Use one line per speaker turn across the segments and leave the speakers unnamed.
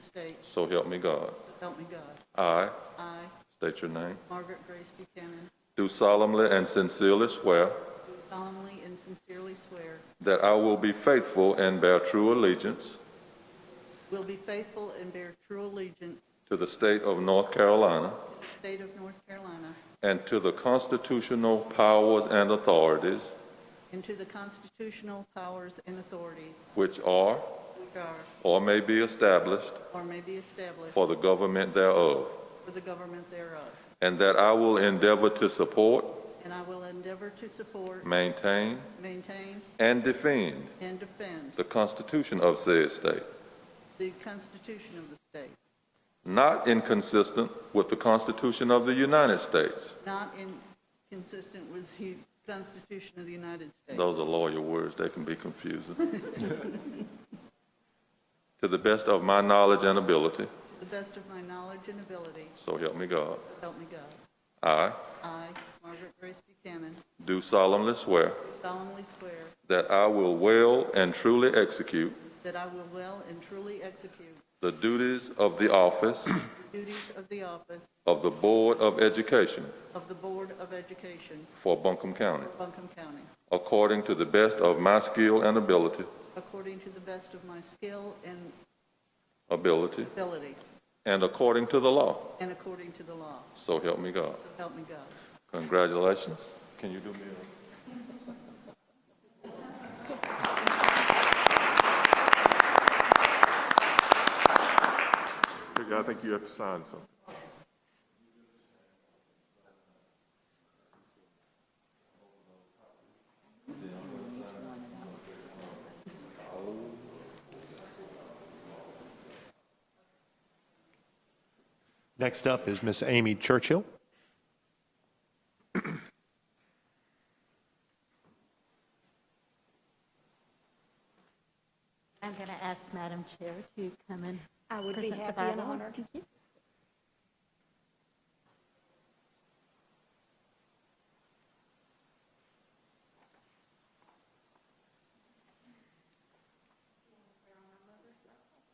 States,
So help me God.
so help me God.
I,
I,
state your name,
Margaret Grace Buchanan,
do solemnly and sincerely swear
do solemnly and sincerely swear,
that I will be faithful and bear true allegiance
will be faithful and bear true allegiance
to the state of North Carolina
to the state of North Carolina
and to the constitutional powers and authorities
and to the constitutional powers and authorities
which are
which are
or may be established
or may be established
for the government thereof,
for the government thereof.
and that I will endeavor to support,
And I will endeavor to support,
maintain,
maintain,
and defend
and defend
the Constitution of said state,
the Constitution of the state,
not inconsistent with the Constitution of the United States.
not inconsistent with the Constitution of the United States.
Those are lawyer words, they can be confusing. To the best of my knowledge and ability,
To the best of my knowledge and ability,
so help me God.
so help me God.
I
I, Margaret Grace Buchanan,
do solemnly swear
solemnly swear
that I will well and truly execute
that I will well and truly execute
the duties of the office
the duties of the office
of the Board of Education
of the Board of Education
for Buncombe County,
for Buncombe County,
according to the best of my skill and ability,
according to the best of my skill and
ability,
ability,
and according to the law.
and according to the law.
So help me God.
So help me God.
Congratulations. Can you do me a?
I think you have to sign something.
Next up is Miss Amy Churchill.
I'm going to ask Madam Chair to come and
I would be
present the
happy and
Bible.
honored.
Thank you.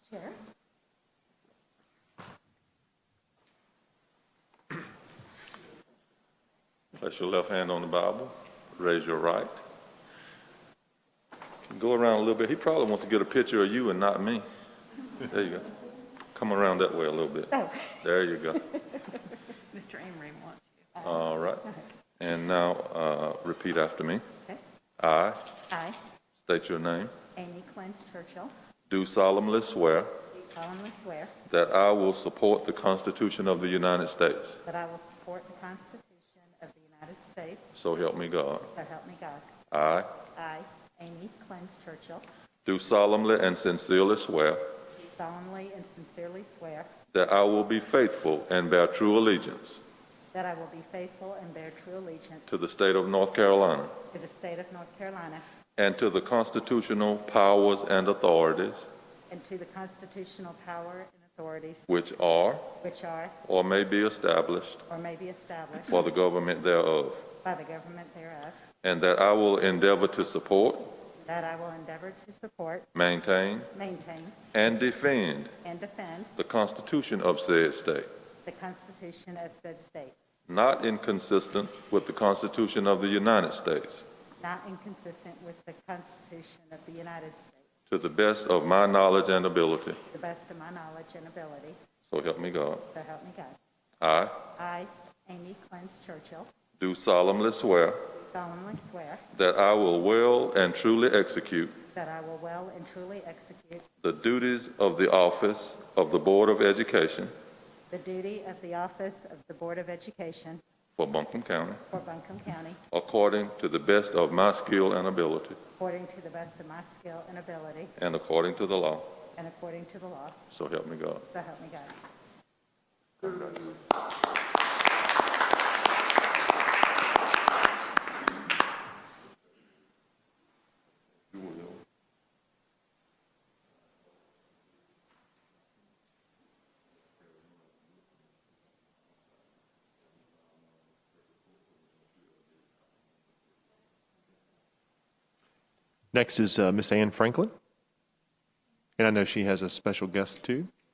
Sure.
Place your left hand on the Bible, raise your right. Can Go around a little bit. He probably wants to get a picture of you and not me. There you go. Come around that way a little bit.
Oh.
There you go.
Mr. Amory wants you.
All right. And now, uh, repeat after me.
Okay.
I,
I,
state your name,
Amy Clance Churchill,
do solemnly swear
do solemnly swear
that I will support the Constitution of the United States.
that I will support the Constitution of the United States,
So help me God.
so help me God.
I
I, Amy Clance Churchill,
do solemnly and sincerely swear
do solemnly and sincerely swear
that I will be faithful and bear true allegiance
that I will be faithful and bear true allegiance
to the state of North Carolina
to the state of North Carolina
and to the constitutional powers and authorities
and to the constitutional power and authorities
which are
which are
or may be established
or may be established
for the government thereof,
by the government thereof,
and that I will endeavor to support,
that I will endeavor to support,
maintain,
maintain,
and defend
and defend
the Constitution of said state,
the Constitution of said state,
not inconsistent with the Constitution of the United States,
not inconsistent with the Constitution of the United States,
to the best of my knowledge and ability.
to the best of my knowledge and ability,
So help me God.
so help me God.
I
I, Amy Clance Churchill,
do solemnly swear
solemnly swear
that I will well and truly execute
that I will well and truly execute
the duties of the office of the Board of Education
the duty of the office of the Board of Education
for Buncombe County
for Buncombe County
according to the best of my skill and ability
according to the best of my skill and ability
and according to the law.
and according to the law,
So help me God.
so help me God.
Next is uh, Miss Anne Franklin. And I know she has a special guest too.